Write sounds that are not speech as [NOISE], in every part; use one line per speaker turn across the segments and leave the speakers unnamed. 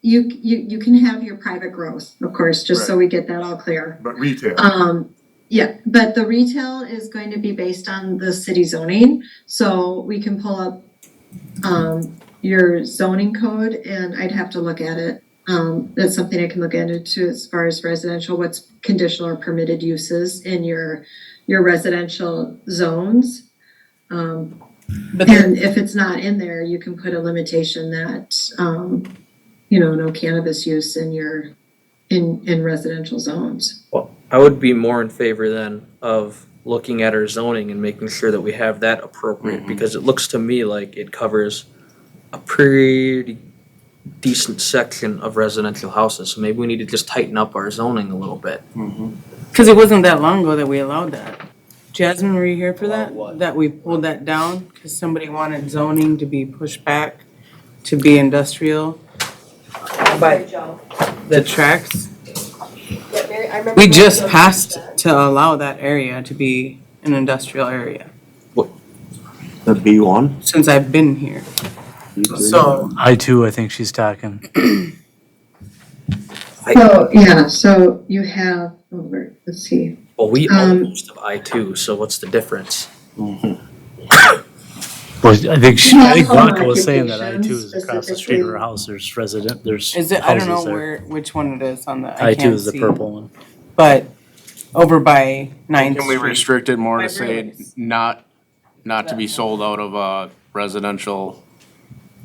You, you, you can have your private growth, of course, just so we get that all clear.
but retail.
Um, yeah, but the retail is going to be based on the city zoning, so we can pull up um, your zoning code and I'd have to look at it. Um, that's something I can look into as far as residential, what's conditional or permitted uses in your, your residential zones. Um,
But there,
and if it's not in there, you can put a limitation that, um, you know, no cannabis use in your, in, in residential zones.
Well, I would be more in favor then of looking at our zoning and making sure that we have that appropriate,
Mm-hmm.
because it looks to me like it covers a pretty decent section of residential houses, so maybe we need to just tighten up our zoning a little bit.
because it wasn't that long ago that we allowed that. Jasmine, were you here for that?
what?
That we pulled that down because somebody wanted zoning to be pushed back to be industrial,
Mary Jo.
the tracks.
Yeah, Mary- I remember
We
when
just
Joe
passed
did that.
to allow that area to be an industrial area
The B one?
since I've been here. So,
I too, I think she's talking.
So, yeah, so you have, over, let's see,
Well, we
Um,
own most of I two, so what's the difference?
Well, I think she, I
Yeah,
think
home
Veronica was saying that I too is
occupations
across the street of her
specifically.
house. There's resident, there's
is it, I don't know
houses there.
where, which one it is on the,
I
I
two
can't
is the
see.
purple one.
But over by Ninth
Can we
Street.
restrict it more
My
to say
roommates.
not, not to be sold out of a residential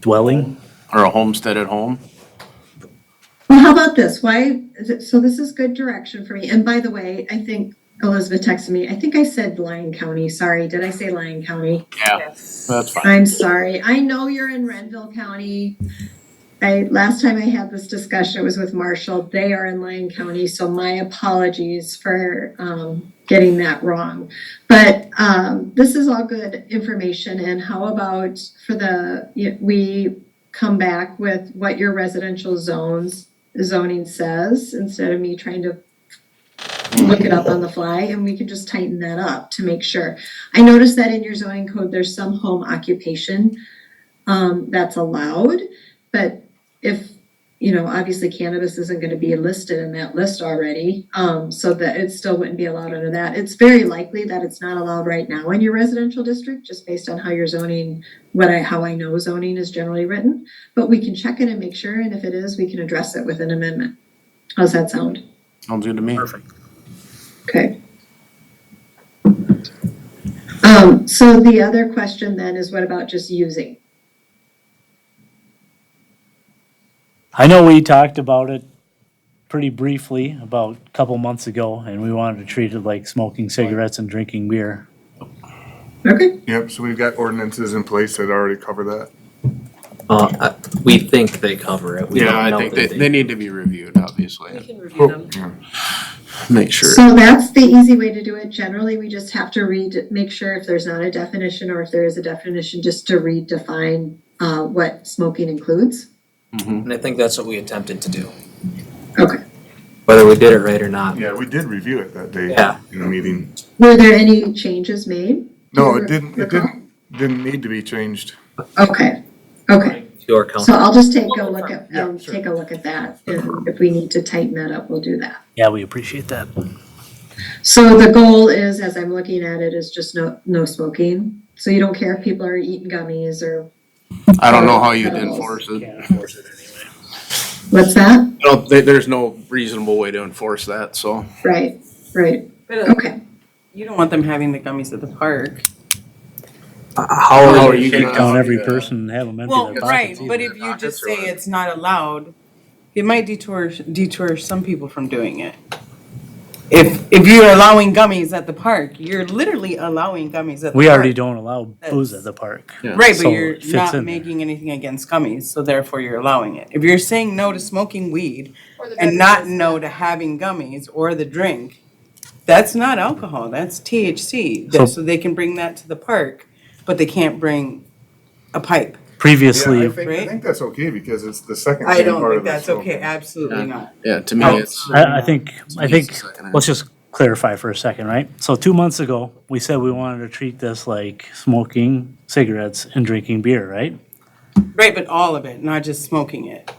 Dwelling?
or a homestead at home?
Well, how about this? Why, is it- so this is good direction for me. And by the way, I think Elizabeth texted me. I think I said Lyon County. Sorry, did I say Lyon County?
Yeah, that's fine.
I'm sorry. I know you're in Renville County. I, last time I had this discussion, it was with Marshall. They are in Lyon County, so my apologies for, um, getting that wrong. But, um, this is all good information and how about for the, y- we come back with what your residential zones, zoning says, instead of me trying to look it up on the fly and we can just tighten that up to make sure. I noticed that in your zoning code, there's some home occupation um, that's allowed, but if, you know, obviously cannabis isn't gonna be listed in that list already, um, so that it still wouldn't be allowed under that. It's very likely that it's not allowed right now in your residential district, just based on how your zoning, what I, how I know zoning is generally written. But we can check it and make sure, and if it is, we can address it with an amendment. How's that sound?
Sounds good to me.
Okay. Um, so the other question then is what about just using?
I know we talked about it pretty briefly about a couple months ago and we wanted to treat it like smoking cigarettes and drinking beer.
Okay,
Yep, so we've got ordinances in place that already cover that.
Uh, I- we think they cover it. We
Yeah,
don't
I
know
think they,
that
they need to be reviewed,
We
obviously.
can review them.
Make sure.
so that's the easy way to do it. Generally, we just have to read, make sure if there's not a definition or if there is a definition, just to redefine uh, what smoking includes.
And I think that's what we attempted to do,
Okay.
whether we did it right or not.
Yeah, we did review it that day
Yeah.
in the meeting.
Were there any changes made?
No,
Do you
it didn't, it
recall?
didn't, didn't need to be changed.
Okay, okay.
To our
So
council,
I'll just take a look at,
Yeah,
I'll
sure.
take a look at that. And if we need to tighten that up, we'll do that.
Yeah, we appreciate that.
So the goal is, as I'm looking at it, is just no, no smoking. So you don't care if people are eating gummies or,
I don't know how you'd enforce it.
[LAUGHS]
what's that?
No, there, there's no reasonable way to enforce that, so.
Right, right,
But uh,
okay.
you don't want them having the gummies at the park.
Uh, how
How
are
are
you
you
Take
gonna-
down every person and have them empty
Well,
their
right,
pockets.
but
either.
if you just
Pockets
say
or-
it's not allowed, it might detour, detour some people from doing it. If, if you're allowing gummies at the park, you're literally allowing gummies at the park.
We already don't allow booze at the park.
Right,
so
but you're
it fits in there.
not making anything against gummies, so therefore you're allowing it. If you're saying no to smoking weed
Or the
and not
beverages.
no to having gummies or the drink, that's not alcohol, that's THC.
So-
So they can bring that to the park, but they can't bring a pipe.
Previously,
Yeah, I think, I
Right?
think that's okay because it's the second.
I
main
don't
part
think
of the
that's
smoke.
okay, absolutely not.
Yeah, to me,
No.
it's.
I, I think, I
It's
think,
the second half.
let's just clarify for a second, right? So two months ago, we said we wanted to treat this like smoking cigarettes and drinking beer, right?
Right, but all of it, not just smoking it.